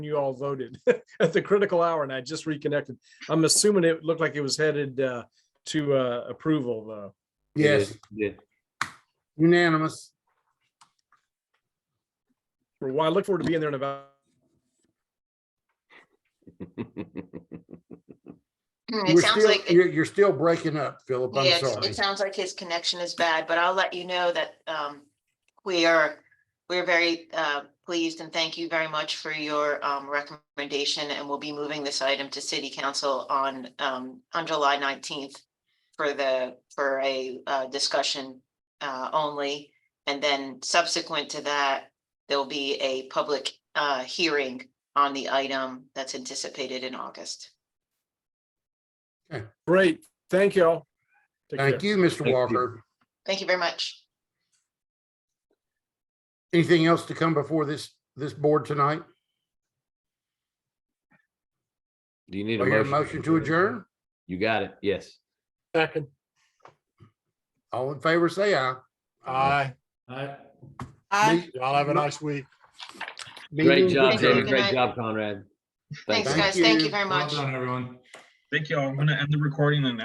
you all voted at the critical hour and I just reconnected. I'm assuming it looked like it was headed uh, to uh, approval though. Yes, Good. unanimous. For why I look forward to being there in about, Hmm, It We're sounds still- like, it- You're, you're still breaking up, Philip. I'm yes, sorry. it sounds like his connection is bad, but I'll let you know that um, we are, we're very uh, pleased and thank you very much for your um, recommendation and we'll be moving this item to city council on, um, on July nineteenth for the, for a uh, discussion uh, only. And then subsequent to that, there'll be a public uh, hearing on the item that's anticipated in August. great, thank y'all. Take care. Thank you, Mr. Thank you. Walker. Thank you very much. Anything else to come before this, this board tonight? Do you need Do I a hear Oh, a motion? motion to adjourn? You got it. Yes. Second. All in favor, say aye. Aye. Aye. Y'all have a nice week. Great job, Thank you. David. Great Good night. job, Conrad. Thanks, you. guys. Thank you very much. everyone. Thank y'all. I'm gonna end the recording and